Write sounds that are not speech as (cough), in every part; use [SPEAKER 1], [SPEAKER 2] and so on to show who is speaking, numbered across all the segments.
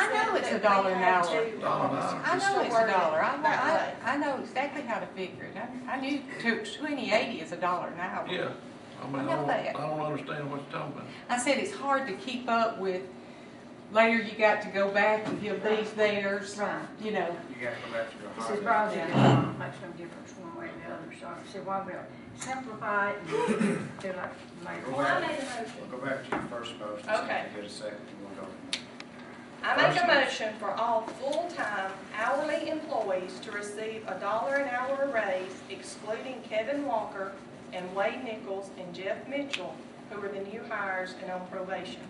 [SPEAKER 1] a dollar an hour.
[SPEAKER 2] Dollar an hour.
[SPEAKER 1] I know it's a dollar, I, I,
[SPEAKER 3] That
[SPEAKER 1] I know exactly how to figure it, I, I knew twenty eighty is a dollar an hour.
[SPEAKER 2] Yeah, I mean,
[SPEAKER 1] I
[SPEAKER 2] I
[SPEAKER 1] know
[SPEAKER 2] don't, I
[SPEAKER 1] that.
[SPEAKER 2] don't understand what you're talking about.
[SPEAKER 1] I said it's hard to keep up with, later you got to go back and give these theirs,
[SPEAKER 3] Right.
[SPEAKER 1] you know.
[SPEAKER 4] You gotta go back to your
[SPEAKER 3] He says,
[SPEAKER 4] heart.
[SPEAKER 3] Roger, it don't make no difference one way or the other, so I said, why we simplify it and do like,
[SPEAKER 4] Go
[SPEAKER 3] make.
[SPEAKER 5] Well, I
[SPEAKER 4] back,
[SPEAKER 5] made a motion.
[SPEAKER 4] go back to your first motion, see if
[SPEAKER 5] Okay.
[SPEAKER 4] you get a second, and we'll go from there.
[SPEAKER 5] I make a motion for all full-time hourly employees to receive a dollar an hour raise excluding Kevin Walker and Wade Nichols and Jeff Mitchell, who are the new hires and on probation.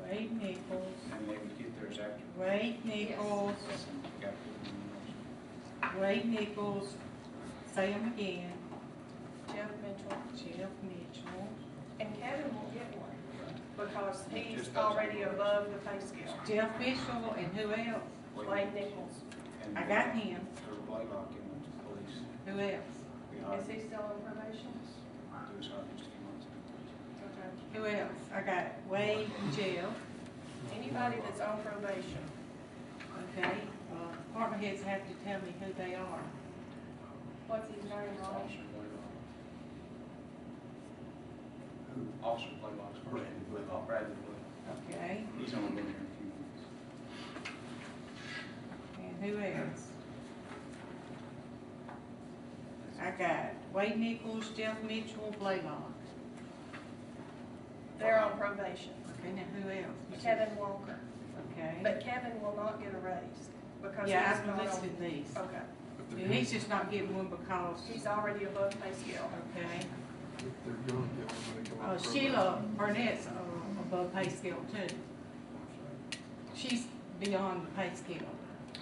[SPEAKER 1] Wade Nichols,
[SPEAKER 4] And they would get theirs after.
[SPEAKER 1] Wade Nichols,
[SPEAKER 4] Yes, and you gotta put them in the motion.
[SPEAKER 1] Wade Nichols, say them again,
[SPEAKER 5] Jeff Mitchell
[SPEAKER 1] Jeff Mitchell,
[SPEAKER 5] and Kevin will get one because he's
[SPEAKER 4] Just those
[SPEAKER 5] already
[SPEAKER 4] numbers.
[SPEAKER 5] above the pay scale.
[SPEAKER 1] Jeff Mitchell, and who else?
[SPEAKER 5] Wade Nichols,
[SPEAKER 4] And
[SPEAKER 1] I got him,
[SPEAKER 4] Through Blaylock and went to the police.
[SPEAKER 1] who else?
[SPEAKER 4] We hired
[SPEAKER 5] is he still on probation?
[SPEAKER 4] him. He was hired just a few months ago.
[SPEAKER 5] Okay.
[SPEAKER 1] Who else? I got Wade and Jeff,
[SPEAKER 5] Anybody that's on probation.
[SPEAKER 1] okay, uh, department heads have to tell me who they are.
[SPEAKER 5] What's his name, Raj?
[SPEAKER 4] Officer Blaylock. Who? Officer Blaylock's Oh, Brandon Blaylock. Bradley Blaylock.
[SPEAKER 1] Okay,
[SPEAKER 4] He's only been here a few months.
[SPEAKER 1] and who else? I got Wade Nichols, Jeff Mitchell, Blaylock.
[SPEAKER 5] They're on probation.
[SPEAKER 1] Okay, now who else?
[SPEAKER 5] Kevin Walker.
[SPEAKER 1] Okay.
[SPEAKER 5] But Kevin will not get a raise because he's
[SPEAKER 1] Yeah,
[SPEAKER 5] not
[SPEAKER 1] I've
[SPEAKER 5] on.
[SPEAKER 1] listed these.
[SPEAKER 5] Okay,
[SPEAKER 6] If
[SPEAKER 1] And
[SPEAKER 6] they're, if
[SPEAKER 1] He's just not getting one because,
[SPEAKER 5] he's already above pay scale.
[SPEAKER 1] okay.
[SPEAKER 6] they're young, yeah, when they come
[SPEAKER 1] Uh,
[SPEAKER 6] out. for
[SPEAKER 1] Sheila
[SPEAKER 6] probation.
[SPEAKER 1] Burnett's uh, above pay scale too. She's beyond the pay scale.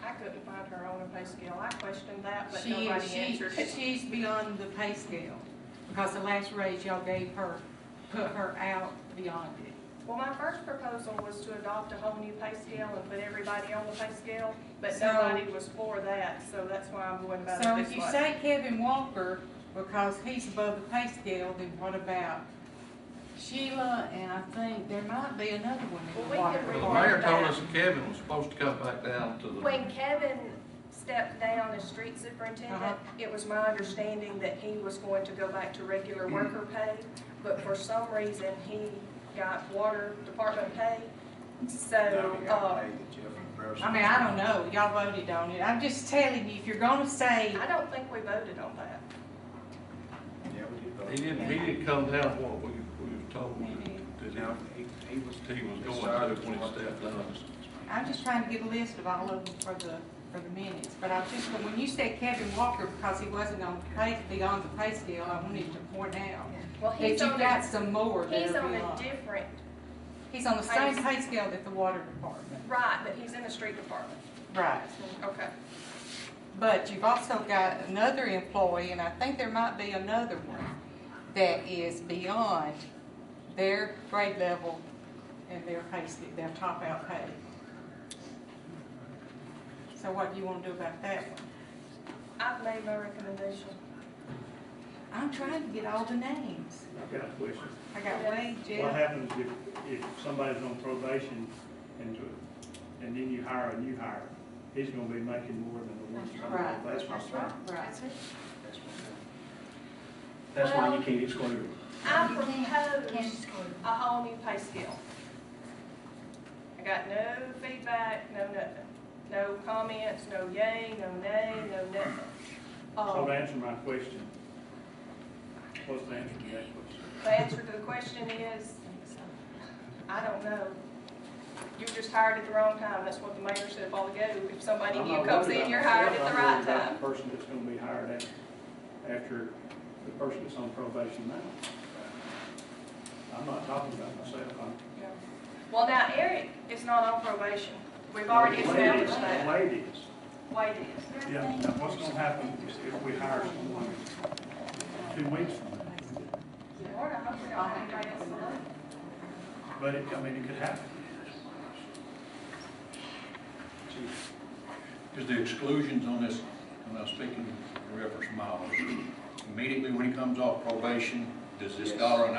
[SPEAKER 5] I couldn't find her on a pay scale. I questioned that, but
[SPEAKER 1] She,
[SPEAKER 5] nobody
[SPEAKER 1] she,
[SPEAKER 5] answered it.
[SPEAKER 1] (laughs) she's beyond the pay scale because the last raise y'all gave her, put her out beyond it.
[SPEAKER 5] Well, my first proposal was to adopt a whole new pay scale and put everybody on the pay scale, but
[SPEAKER 1] So-
[SPEAKER 5] nobody was for that, so that's why I'm going about
[SPEAKER 1] So
[SPEAKER 5] it
[SPEAKER 1] if
[SPEAKER 5] this
[SPEAKER 1] you
[SPEAKER 5] way.
[SPEAKER 1] say Kevin Walker, because he's above the pay scale, then what about Sheila, and I think there might be another one
[SPEAKER 5] Well,
[SPEAKER 1] in the
[SPEAKER 5] we
[SPEAKER 1] water
[SPEAKER 5] can
[SPEAKER 2] Well,
[SPEAKER 5] read
[SPEAKER 2] the
[SPEAKER 1] department.
[SPEAKER 2] mayor told us that Kevin was supposed to come back down to the.
[SPEAKER 5] When Kevin stepped down as street superintendent, it was my understanding that he was going to go back to regular worker pay, but for some reason, he got water department pay, so,
[SPEAKER 4] Now, we gotta
[SPEAKER 5] uh,
[SPEAKER 4] pay the Jeff and Bruce.
[SPEAKER 1] I mean, I don't know, y'all voted on it, I'm just telling you, if you're gonna say,
[SPEAKER 5] I don't think we voted on that.
[SPEAKER 4] Yeah, we did vote.
[SPEAKER 2] He didn't, he didn't come down what we, we were told that, that
[SPEAKER 4] No, he, he was.
[SPEAKER 2] he, he was going
[SPEAKER 4] Sorry.
[SPEAKER 2] to when he stepped down.
[SPEAKER 1] I'm just trying to get a list of all of them for the, for the minutes, but I just, but when you said Kevin Walker, because he wasn't on pay, beyond the pay scale, I wanted to point out
[SPEAKER 5] Well,
[SPEAKER 1] that you
[SPEAKER 5] he's on
[SPEAKER 1] got
[SPEAKER 5] a,
[SPEAKER 1] some more that
[SPEAKER 5] he's
[SPEAKER 1] are
[SPEAKER 5] on a
[SPEAKER 1] beyond.
[SPEAKER 5] different,
[SPEAKER 1] He's on the
[SPEAKER 5] pay
[SPEAKER 1] same pay scale that the water department.
[SPEAKER 5] right, but he's in the street department.
[SPEAKER 1] Right.
[SPEAKER 5] Okay.
[SPEAKER 1] But you've also got another employee, and I think there might be another one, that is beyond their grade level and their pay, scale, their top out pay. So what do you want to do about that one?
[SPEAKER 5] I've made my recommendation.
[SPEAKER 1] I'm trying to get all the names.
[SPEAKER 7] I've got a question.
[SPEAKER 1] I got Wade,
[SPEAKER 7] What
[SPEAKER 1] Jeff,
[SPEAKER 7] happens if, if somebody's on probation and, and then you hire a new hire? He's gonna be making more than the one. that's on
[SPEAKER 1] Right.
[SPEAKER 7] probation.
[SPEAKER 4] That's my point.
[SPEAKER 1] right.
[SPEAKER 4] That's my point.
[SPEAKER 8] That's why you can't exclude them.
[SPEAKER 5] I proposed a whole new pay scale. I got no feedback, no nothing. No comments, no yay, no nay, no nothing.
[SPEAKER 7] So to
[SPEAKER 5] Um,
[SPEAKER 7] answer my question, what's the answer to that question?
[SPEAKER 5] The answer to the question is, I don't know. You were just hired at the wrong time. That's what the mayor said a while ago. If somebody
[SPEAKER 7] I'm
[SPEAKER 5] new
[SPEAKER 7] not
[SPEAKER 5] comes
[SPEAKER 7] worried
[SPEAKER 5] in,
[SPEAKER 7] about
[SPEAKER 5] you're hired
[SPEAKER 7] myself.
[SPEAKER 5] at the
[SPEAKER 7] I'm
[SPEAKER 5] right
[SPEAKER 7] worried about
[SPEAKER 5] time.
[SPEAKER 7] The person that's gonna be hired after, after the person that's on probation now. I'm not talking about myself, I'm
[SPEAKER 5] Yeah. Well, now Eric is not on probation. We've already
[SPEAKER 7] Ladies,
[SPEAKER 5] established that.
[SPEAKER 7] Ladies,
[SPEAKER 5] Wade is.
[SPEAKER 7] yeah, now what's gonna happen is if we hire someone two weeks from now,
[SPEAKER 5] Lord, I hope we don't have anybody else to look.
[SPEAKER 7] but it, I mean, it could happen.
[SPEAKER 9] is the exclusions on this, I'm not speaking in reference to mileage. Immediately when he comes off probation, does this
[SPEAKER 4] Yes.
[SPEAKER 9] dollar an